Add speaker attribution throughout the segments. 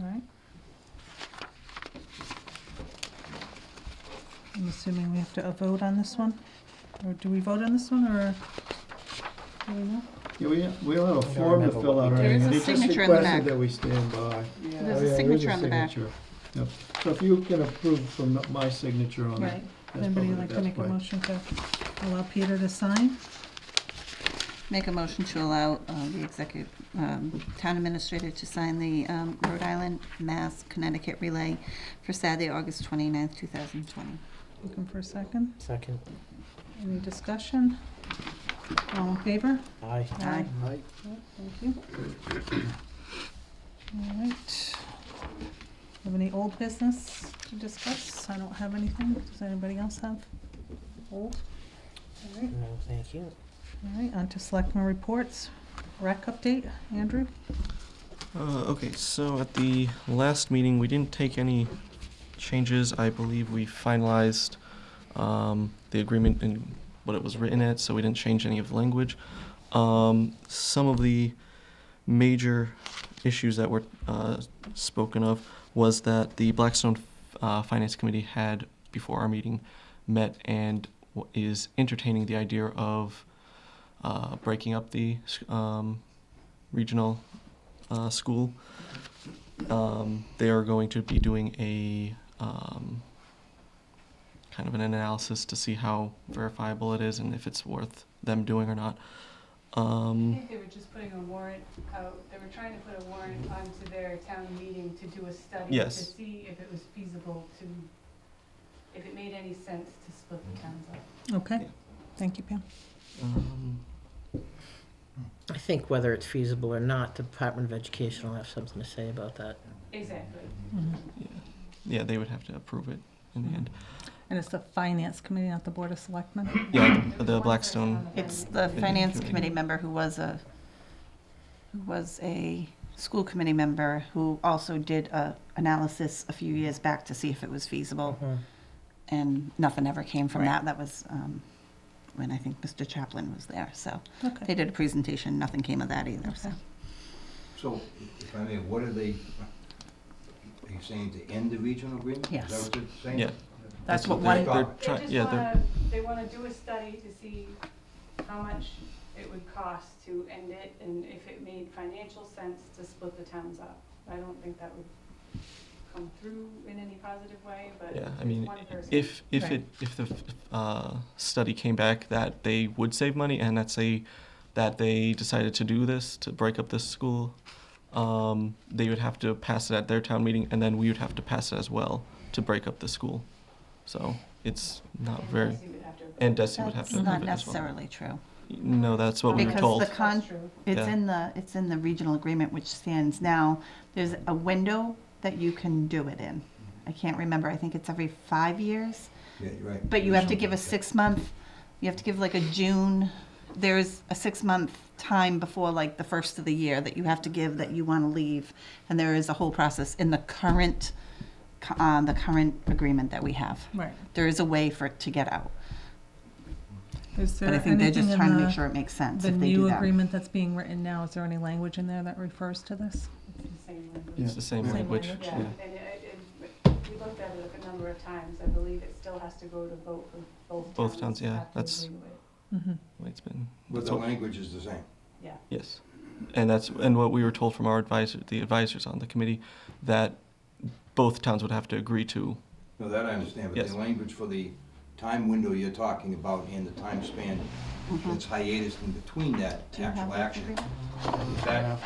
Speaker 1: right? I'm assuming we have to uh, vote on this one? Or do we vote on this one, or? do we know?
Speaker 2: Yeah, we, we don't have a
Speaker 3: I don't
Speaker 2: form to
Speaker 3: remember
Speaker 2: fill
Speaker 3: what
Speaker 2: out
Speaker 3: we
Speaker 2: or
Speaker 3: did.
Speaker 2: anything.
Speaker 4: There is a signature in the
Speaker 2: They just requested
Speaker 4: back.
Speaker 2: that we stand by. Oh,
Speaker 4: There's a
Speaker 2: yeah, there is
Speaker 4: signature on the back.
Speaker 2: signature. Yep, so if you can approve from my signature on it,
Speaker 1: Right,
Speaker 2: that's
Speaker 1: anybody
Speaker 2: probably the
Speaker 1: like to make
Speaker 2: best
Speaker 1: a
Speaker 2: way.
Speaker 1: motion to allow Peter to sign?
Speaker 4: Make a motion to allow uh, the executive, um, town administrator to sign the um, Rhode Island, Mass, Connecticut relay for Saturday, August 29th, 2020.
Speaker 1: Looking for a second?
Speaker 3: Second,
Speaker 1: Any discussion? All in favor?
Speaker 3: aye.
Speaker 4: Aye.
Speaker 3: Aye.
Speaker 1: Yep, Thank you. All right. Have any old business to discuss? I don't have anything. Does anybody else have old? All right,
Speaker 3: No, thank you.
Speaker 1: all right, on to selectmen reports. Rec update, Andrew?
Speaker 5: Uh, okay, so at the last meeting, we didn't take any changes. I believe we finalized um, the agreement and what it was written at, so we didn't change any of the language. Um, some of the major issues that were uh, spoken of was that the Blackstone uh, Finance Committee had, before our meeting, met and w- is entertaining the idea of uh, breaking up the um, regional uh, school. Um, they are going to be doing a um, kind of an analysis to see how verifiable it is and if it's worth them doing or not.
Speaker 6: I
Speaker 5: Um,
Speaker 6: think they were just putting a warrant out, they were trying to put a warrant onto their town meeting to do a study to
Speaker 5: Yes.
Speaker 6: see if it was feasible to, if it made any sense to split the towns up.
Speaker 1: Okay,
Speaker 5: Yeah.
Speaker 1: thank you, Pam.
Speaker 5: um,
Speaker 3: I think whether it's feasible or not, the Department of Education will have something to say about that.
Speaker 6: Exactly.
Speaker 1: Mhm.
Speaker 5: yeah. yeah, they would have to approve it in the end.
Speaker 1: And it's the finance committee, not the board of selectmen?
Speaker 5: Yeah,
Speaker 6: There was
Speaker 5: the
Speaker 6: one
Speaker 5: Blackstone.
Speaker 6: person on
Speaker 4: It's
Speaker 6: phone.
Speaker 4: the
Speaker 5: Committee,
Speaker 4: finance
Speaker 5: committee.
Speaker 4: committee member who was a, who was a school committee member who also did a analysis a few years back to see if it was
Speaker 3: Oh,
Speaker 4: feasible, and nothing ever came from that. That was um, when I think Mr. Chaplin was there, so they
Speaker 1: Okay.
Speaker 4: did a presentation, nothing came of that either, so.
Speaker 1: Okay.
Speaker 7: So, if I may, what are they, are you saying to end the regional agreement? Is
Speaker 4: Yes.
Speaker 7: that what they're saying?
Speaker 5: Yeah.
Speaker 4: That's what
Speaker 5: they're-
Speaker 4: one,
Speaker 7: Stop
Speaker 5: They're
Speaker 7: it.
Speaker 5: trying,
Speaker 6: They
Speaker 5: yeah,
Speaker 6: just
Speaker 5: they're,
Speaker 6: wanna, they wanna do a study to see how much it would cost to end it and if it made financial sense to split the towns up. I don't think that would come through in any positive way, but
Speaker 5: yeah, I
Speaker 6: it's
Speaker 5: mean,
Speaker 6: one person.
Speaker 5: if, if
Speaker 1: Right.
Speaker 5: it, if the, uh, study came back that they would save money and that's a, that they decided to do this, to break up this school, um, they would have to pass it at their town meeting and then we would have to pass it as well to break up the school. So it's not
Speaker 6: And
Speaker 5: very,
Speaker 6: Darcy would have to-
Speaker 5: and Desi would have
Speaker 4: that's
Speaker 5: to approve
Speaker 4: not
Speaker 5: it as well.
Speaker 4: necessarily true.
Speaker 5: No, that's what we were
Speaker 4: Because
Speaker 5: told.
Speaker 4: the con-
Speaker 6: That's true.
Speaker 4: It's
Speaker 5: Yeah.
Speaker 4: in the, it's in the regional agreement which stands now. There's a window that you can do it in. I can't remember, I think it's every five years,
Speaker 7: Yeah, you're right.
Speaker 4: but you have to give a
Speaker 7: Something.
Speaker 4: six-month, you have to give like a June, there's a six-month time before like the first of the year that you have to give that you want to leave. And there is a whole process in the current, co- uh, the current agreement that we have.
Speaker 1: Right.
Speaker 4: There is a way for it to get out,
Speaker 1: Is there
Speaker 4: but I think they're
Speaker 1: anything
Speaker 4: just
Speaker 1: in
Speaker 4: trying to
Speaker 1: the-
Speaker 4: make sure it makes sense
Speaker 1: The
Speaker 4: if they do
Speaker 1: new
Speaker 4: that.
Speaker 1: agreement that's being written now, is there any language in there that refers to this?
Speaker 6: It's the same language.
Speaker 5: It's the same
Speaker 1: Same
Speaker 5: language,
Speaker 1: language.
Speaker 6: Yeah,
Speaker 5: yeah.
Speaker 6: and it, it, we looked at it a number of times, I believe it still has to go to vote for both towns.
Speaker 5: Both towns, yeah,
Speaker 6: have to
Speaker 5: that's-
Speaker 6: agree with it.
Speaker 1: Mhm.
Speaker 5: Well, It's been,
Speaker 7: But
Speaker 5: that's
Speaker 7: the
Speaker 5: what-
Speaker 7: language is the same.
Speaker 6: Yeah.
Speaker 5: Yes, and that's, and what we were told from our advisor, the advisors on the committee, that both towns would have to agree to.
Speaker 7: No, that I understand, but
Speaker 5: Yes.
Speaker 7: the language for the time window you're talking about and the time span that's hiatus in between that
Speaker 4: Mm-hmm. Do you have
Speaker 7: actual
Speaker 4: that
Speaker 7: action,
Speaker 4: agreement?
Speaker 7: is that a
Speaker 4: I
Speaker 7: time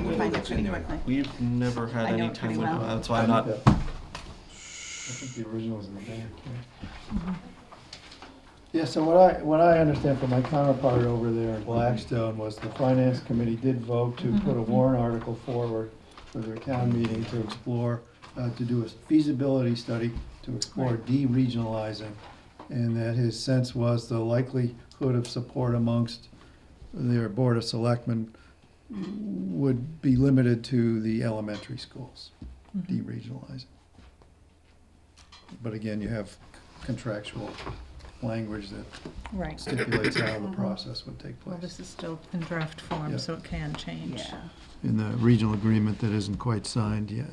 Speaker 4: can
Speaker 7: window
Speaker 4: find it
Speaker 7: that's in
Speaker 4: pretty
Speaker 7: there?
Speaker 4: quickly.
Speaker 5: We've never had
Speaker 4: I know
Speaker 5: any
Speaker 4: it
Speaker 5: time
Speaker 4: pretty
Speaker 5: window,
Speaker 4: well.
Speaker 5: that's why I'm not,
Speaker 2: I uh, think the original is in the back. yeah. Yeah, so what I, what I understand from my counterpart over there in Blackstone was the finance committee did vote to put a warrant article forward for their town meeting to explore, uh, to do a feasibility study to explore de-regionalizing. And that his sense was the likelihood of support amongst their board of selectmen would be limited to the elementary schools,
Speaker 1: Mm-hmm.
Speaker 2: de-regionalizing. But again, you have contractual language that
Speaker 1: Right.
Speaker 2: stipulates how the process would take
Speaker 1: Well,
Speaker 2: place.
Speaker 1: this is still in draft form,
Speaker 2: Yeah.
Speaker 1: so it can change.
Speaker 4: Yeah.
Speaker 2: In the regional agreement that isn't quite signed yet.